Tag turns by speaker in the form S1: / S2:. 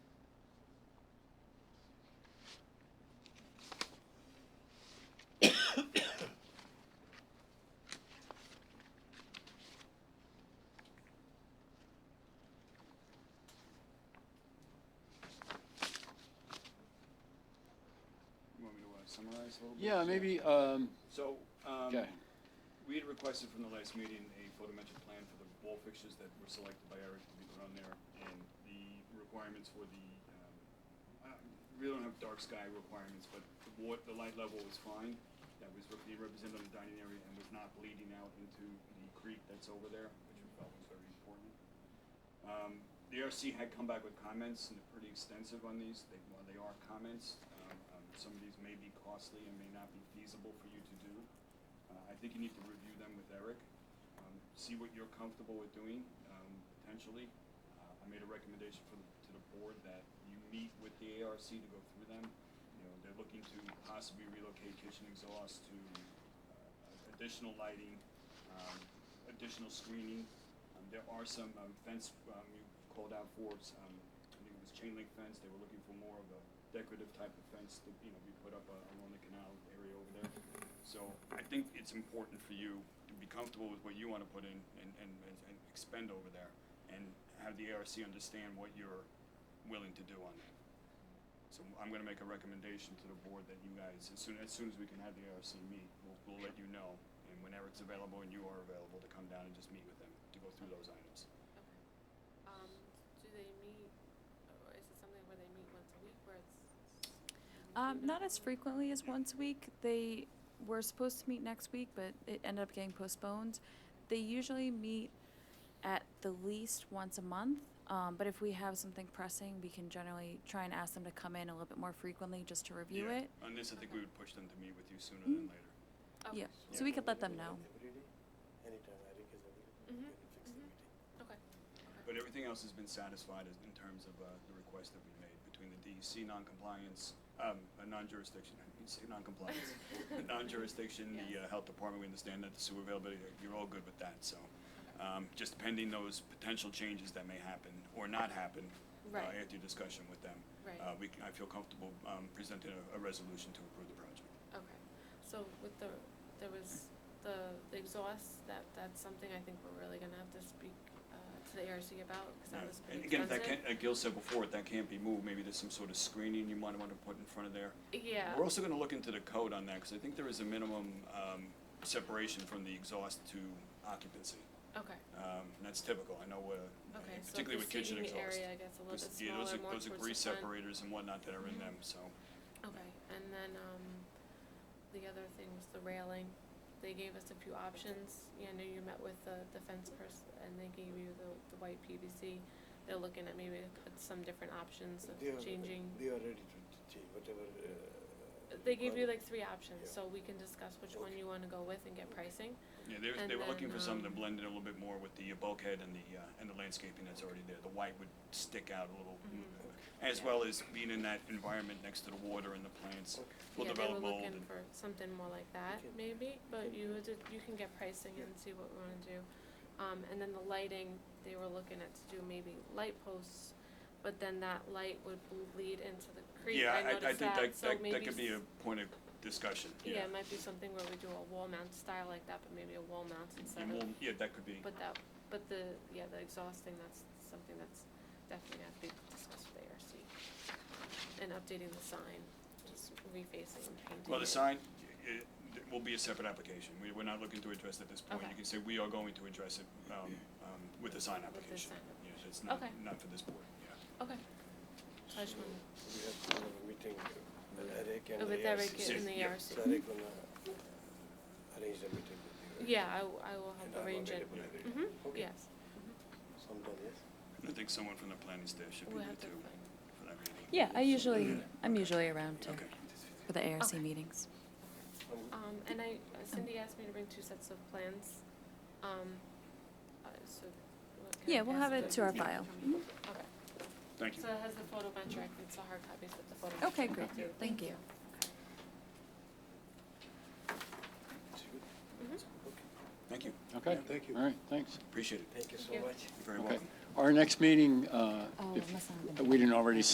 S1: uh, summarize a little bit?
S2: Yeah, maybe, um,
S1: So, um,
S2: Okay.
S1: we had requested from the last meeting a photometric plan for the wall fixtures that were selected by Eric to be put on there, and the requirements for the, um, uh, we don't have dark sky requirements, but the wa, the light level was fine. That was re- being represented on the dining area and was not bleeding out into the creek that's over there, which we felt was very important. Um, the ARC had come back with comments, and they're pretty extensive on these, they, well, they are comments. Um, um, some of these may be costly and may not be feasible for you to do. Uh, I think you need to review them with Eric, um, see what you're comfortable with doing, um, potentially. Uh, I made a recommendation for the, to the board that you meet with the ARC to go through them. You know, they're looking to possibly relocate kitchen exhaust to, uh, additional lighting, um, additional screening. Um, there are some, um, fence, um, you called out for, um, I think it was chain link fence, they were looking for more of a decorative type of fence to, you know, be put up uh, along the canal area over there. So I think it's important for you to be comfortable with what you wanna put in and, and, and and expend over there and have the ARC understand what you're willing to do on that. So I'm gonna make a recommendation to the board that you guys, as soon, as soon as we can have the ARC meet, we'll, we'll let you know. And when Eric's available and you are available, to come down and just meet with them, to go through those items.
S3: Okay. Um, do they meet, or is it something where they meet once a week where it's?
S4: Um,
S3: you know,
S4: not as frequently as once a week. They were supposed to meet next week, but it ended up getting postponed. They usually meet at the least once a month. Um, but if we have something pressing, we can generally try and ask them to come in a little bit more frequently just to review
S1: Yeah.
S4: it. Mm.
S1: On this, I think we would push them to meet with you sooner than later.
S3: Okay.
S4: Yeah. So we could let them know.
S5: Anytime, I think, is a,
S3: Mhm,
S5: we can fix the
S3: mhm.
S5: meeting.
S3: Okay.
S1: But everything else has been satisfied as, in terms of, uh, the request that we made between the DEC non-compliance, um, uh, non-jurisdiction, I mean, say non-compliance, the non-jurisdiction, the, uh, health department, we understand that the sewer availability, you're all good with that, so. Um, just pending those potential changes that may happen or not happen, uh,
S3: Right.
S1: after your discussion with them.
S3: Right.
S1: Uh, we, c- I feel comfortable, um, presenting a, a resolution to approve the project.
S3: Okay. So with the, there was the the exhaust, that, that's something I think we're really gonna have to speak, uh, to the ARC about, cause that
S1: Yeah.
S3: was
S1: And
S3: pretty
S1: again, if that
S3: expensive.
S1: can't, like Gil said before, if that can't be moved, maybe there's some sort of screening you might wanna put in front of there.
S3: Yeah.
S1: uh, We're also gonna look into the code on that, because I think there is a minimum um, separation from the exhaust to occupancy.
S3: Okay.
S1: Um, And that's typical, I know, uh,
S3: Okay. So if
S1: particularly with kitchen
S3: the
S1: exhaust.
S3: seating area gets a little bit
S1: Because, yeah, those
S3: smaller,
S1: are-
S3: more towards
S1: Those
S3: the
S1: are grease
S3: front.
S1: separators and whatnot that are in
S3: Mhm.
S1: them, so.
S3: Okay, and then, um, the other thing was the railing. They gave us a few options. Yeah, I know you met with the, the fence person and they gave you the, the white PVC. They're looking at maybe at some different options
S5: They are-
S3: of changing.
S5: They are ready to, to change, whatever, uh.
S3: They gave you like
S5: requirement.
S3: three options,
S5: Yeah.
S3: so we can discuss which one you wanna go with and get pricing.
S1: Yeah, they, were-
S3: And
S1: they were looking
S3: then,
S1: for something that
S3: um,
S1: blended a little bit more with the bulkhead and the, uh, and the landscaping that's already there. The white would stick out a little,
S3: Mm-hmm.
S1: as
S3: Yeah.
S1: well as being in that environment next to the water and the plants.
S5: Okay.
S1: We'll
S3: Yeah,
S1: develop mold
S3: They were looking
S1: and-
S3: for something more like that,
S5: Okay.
S3: maybe, but you would, you can get pricing and see what we wanna do. Um, and then the lighting, they were looking at to do maybe light posts, but then that light would bleed into the creek,
S1: Yeah,
S3: I
S1: I, I
S3: noticed
S1: think
S3: that,
S1: that,
S3: so
S1: that,
S3: maybe.
S1: that could be a
S3: s-
S1: point of discussion,
S3: Yeah, it might be something where we do a wall mount style like that, but maybe a wall mount instead
S1: And
S3: of,
S1: we'll- yeah, that could be.
S3: but that, but the, yeah, the exhaust thing, that's something that's definitely gonna have to be discussed with ARC. And updating the sign, just refacing and painting
S1: Well, the
S3: it.
S1: sign, it, it will be a separate application. We, we're not looking to address it at this point.
S3: Okay.
S1: You can say we are going to address it, um, um, with the sign
S3: With the
S1: application.
S3: sign
S1: Yeah, it's not,
S3: Okay.
S1: not for this board, yeah.
S3: Okay. So I just wanted-
S5: We have to have a meeting with Eric and
S3: Oh,
S5: the
S3: with Eric
S5: ARC.
S3: in the
S1: Yeah.
S3: ARC.
S5: So Eric gonna uh, arrange the meeting with you. right?
S3: Yeah, I, w- I will
S5: And
S3: help
S5: I'm
S3: arrange it.
S5: available every day.
S3: Mhm,
S5: Okay.
S3: yes.
S5: Sometime, yes.
S1: I think someone from the planning staff should be
S3: We'll
S1: there
S3: have to
S1: too,
S3: find-
S1: for that meeting.
S4: Yeah, I usually I'm usually around too
S1: Okay.
S4: for the ARC
S3: Okay.
S4: meetings.
S5: I'm good.
S3: Um, and I, Cindy asked me to bring two sets of plans, um, uh, so. what- can I
S4: Yeah, we'll
S3: pass
S4: have it to our
S3: Yeah.
S4: file.
S1: Mm-hmm.
S3: Okay,
S1: Thank you.
S3: so it has the photometric, it's the hard copies with the photometric.
S4: Okay, great. Thank you.
S5: It's good.
S3: Mhm.
S5: Okay.
S1: Thank you.
S2: okay.
S5: Thank you.
S2: All right, thanks.
S1: Appreciate it.
S5: Thank you so
S3: Thank you.
S5: much.
S1: You're very
S2: Okay.
S1: welcome.
S2: Our next meeting, uh,
S4: Oh,
S2: if
S4: unless I'm-
S2: we didn't already